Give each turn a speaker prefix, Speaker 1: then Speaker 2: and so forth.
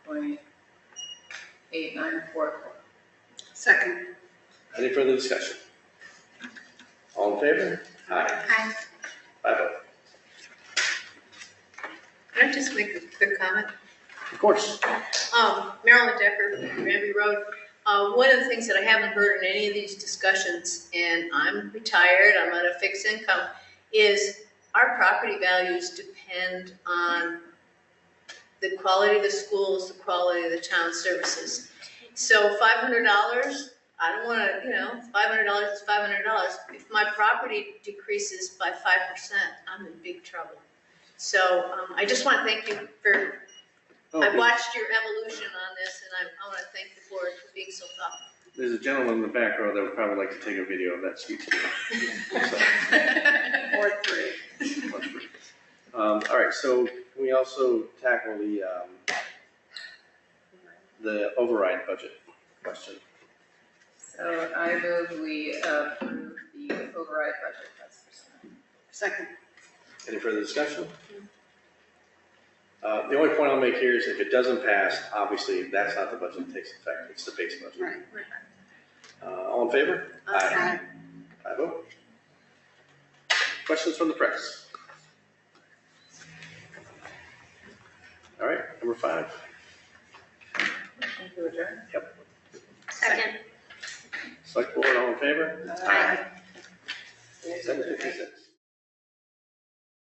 Speaker 1: and affordable. Second.
Speaker 2: Any further discussion? All in favor? Aye.
Speaker 1: Hi.
Speaker 2: Five oh.
Speaker 3: Can I just make a quick comment?
Speaker 2: Of course.
Speaker 3: Um, Marilyn Decker, Ramby Road. Uh, one of the things that I haven't heard in any of these discussions, and I'm retired, I'm on a fixed income, is our property values depend on the quality of the schools, the quality of the town services. So five hundred dollars, I don't wanna, you know, five hundred dollars is five hundred dollars. If my property decreases by five percent, I'm in big trouble. So, um, I just wanna thank you for
Speaker 2: Oh,
Speaker 3: I
Speaker 2: there-
Speaker 3: watched your evolution on this, and I, I want to thank the board for being so thoughtful.
Speaker 2: There's a gentleman in the back row that would probably like to take a video of that speech. So,
Speaker 1: Or three.
Speaker 2: much for- Um, all right, so can we also tackle the, um, the override budget question?
Speaker 4: So I move we approve the override budget as presented.
Speaker 1: Second.
Speaker 2: Any further discussion? Uh, the only point I'll make here is if it doesn't pass, obviously, that's not the budget that takes effect, it's the base budget.
Speaker 1: Right.
Speaker 2: Uh, all in favor?
Speaker 1: Aye.
Speaker 2: Five oh. Questions from the press? All right, number five.
Speaker 4: Thank you, Adjourn.
Speaker 2: Select board, all in favor?
Speaker 1: Aye.
Speaker 2: Seven fifty-six.